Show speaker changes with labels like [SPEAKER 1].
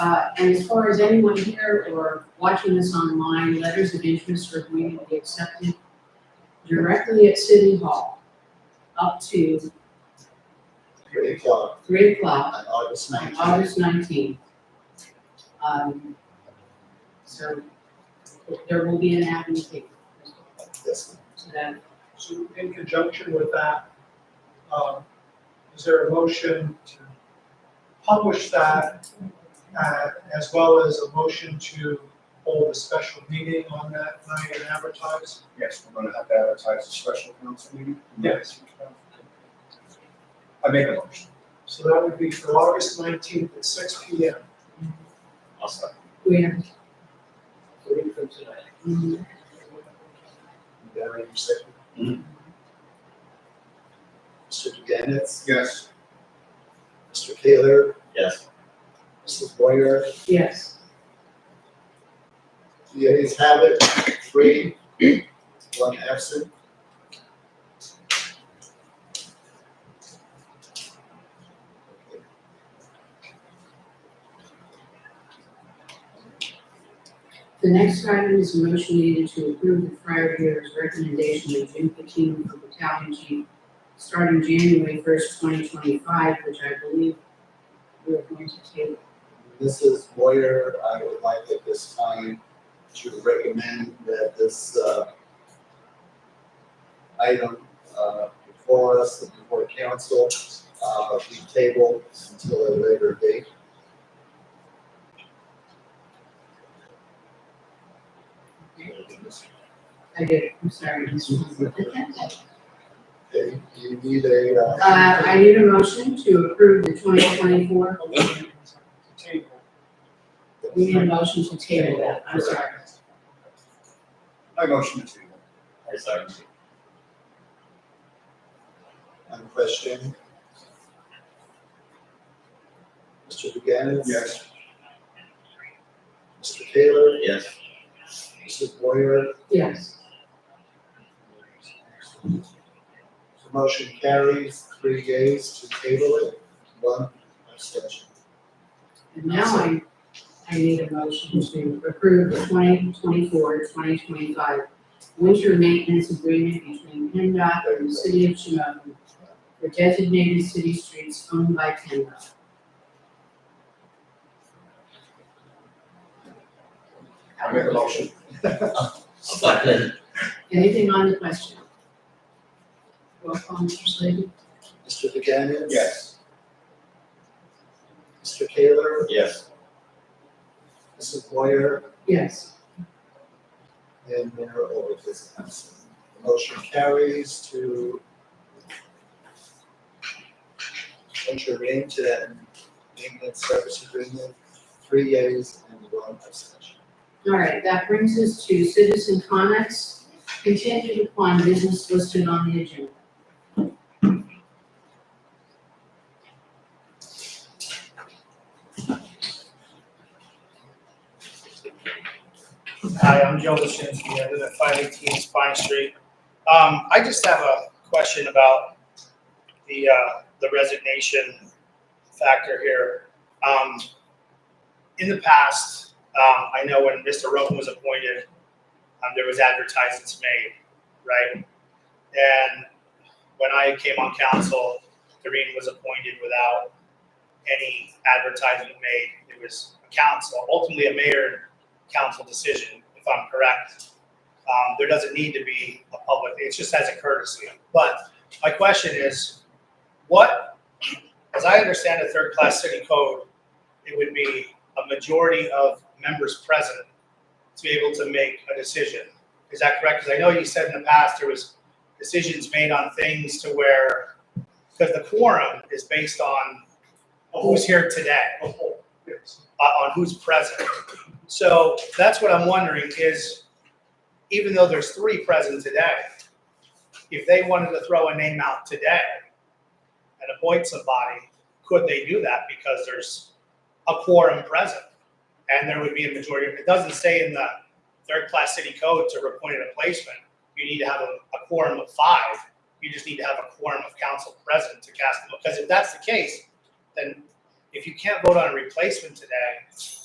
[SPEAKER 1] Uh, and as far as anyone here or watching this online, letters of interest are going to be accepted directly at City Hall up to
[SPEAKER 2] Three o'clock
[SPEAKER 1] three o'clock
[SPEAKER 2] on August
[SPEAKER 1] on
[SPEAKER 2] nineteenth.
[SPEAKER 1] August nineteenth. Um, so there will be an avenue taken,
[SPEAKER 2] Yes,
[SPEAKER 1] so that,
[SPEAKER 3] So in conjunction with that, um, is there a motion to publish that? uh, as well as a motion to hold a special meeting on that night and advertise?
[SPEAKER 4] Yes, we're gonna have to advertise a special council meeting.
[SPEAKER 3] Yes.
[SPEAKER 4] I make a motion.
[SPEAKER 3] So that would be for August nineteenth at six P M.
[SPEAKER 4] I'll second.
[SPEAKER 1] we have, mm,
[SPEAKER 2] you got it, you said.
[SPEAKER 4] Mhm.
[SPEAKER 2] Mr. DeGenitz,
[SPEAKER 4] Yes.
[SPEAKER 2] Mr. Taylor,
[SPEAKER 4] Yes.
[SPEAKER 2] Mrs. Boyer,
[SPEAKER 1] yes.
[SPEAKER 2] the ayes have it, three, one absent.
[SPEAKER 1] The next item is a motion needed to approve the prior year's recommendation of Jim Patino for battalion chief starting January first, twenty twenty-five, which I believe we're going to table.
[SPEAKER 2] Mrs. Boyer, I would like at this time to recommend that this, uh, item, uh, before us, and before council, uh, be tabled until a later date.
[SPEAKER 1] I did, I'm sorry, Mr.
[SPEAKER 2] Okay, you need a, uh.
[SPEAKER 1] Uh, I need a motion to approve the twenty twenty-four,
[SPEAKER 3] Table.
[SPEAKER 1] we need a motion to table that, I'm sorry.
[SPEAKER 4] I motion to table. I second.
[SPEAKER 2] On question? Mr. Buchanan?
[SPEAKER 4] Yes.
[SPEAKER 2] Mr. Taylor?
[SPEAKER 4] Yes.
[SPEAKER 2] Mrs. Boyer?
[SPEAKER 1] Yes,
[SPEAKER 2] The motion carries three yeas to table it, one abstention.
[SPEAKER 1] and now I, I need a motion to approve the 2024-2025 winter maintenance agreement between PennDOT and the city of Shimokin for designated city streets owned by PennDOT.
[SPEAKER 4] I make a motion.
[SPEAKER 1] Anything on the question? Roll call, Mr. Slavy?
[SPEAKER 2] Mr. Buchanan?
[SPEAKER 4] Yes.
[SPEAKER 2] Mr. Taylor?
[SPEAKER 4] Yes.
[SPEAKER 2] Mrs. Boyer?
[SPEAKER 1] Yes.
[SPEAKER 2] And Mayor Olberg is absent. The motion carries to enter into that maintenance service agreement, three yeas and one abstention.
[SPEAKER 1] All right, that brings us to citizen comments contingent upon business listed on the agenda.
[SPEAKER 5] Hi, I'm Joe Lasinski, I live at five eighteen Spine Street. Um, I just have a question about the, uh, the resignation factor here. Um, in the past, um, I know when Mr. Rogan was appointed, um, there was advertisements made, right? And when I came on council, Doreen was appointed without any advertisement made. It was a council, ultimately a mayor and council decision, if I'm correct. Um, there doesn't need to be a public, it's just as a courtesy. But my question is, what, as I understand the third-class city code, it would be a majority of members present to be able to make a decision. Is that correct? Because I know you said in the past there was decisions made on things to where, because the quorum is based on who's here today, uh, on who's present. So that's what I'm wondering is, even though there's three present today, if they wanted to throw a name out today and appoint somebody, could they do that because there's a quorum present? And there would be a majority, it doesn't say in the third-class city code to appoint a placement, you need to have a a quorum of five. You just need to have a quorum of council present to cast the vote. Because if that's the case, then if you can't vote on a replacement today,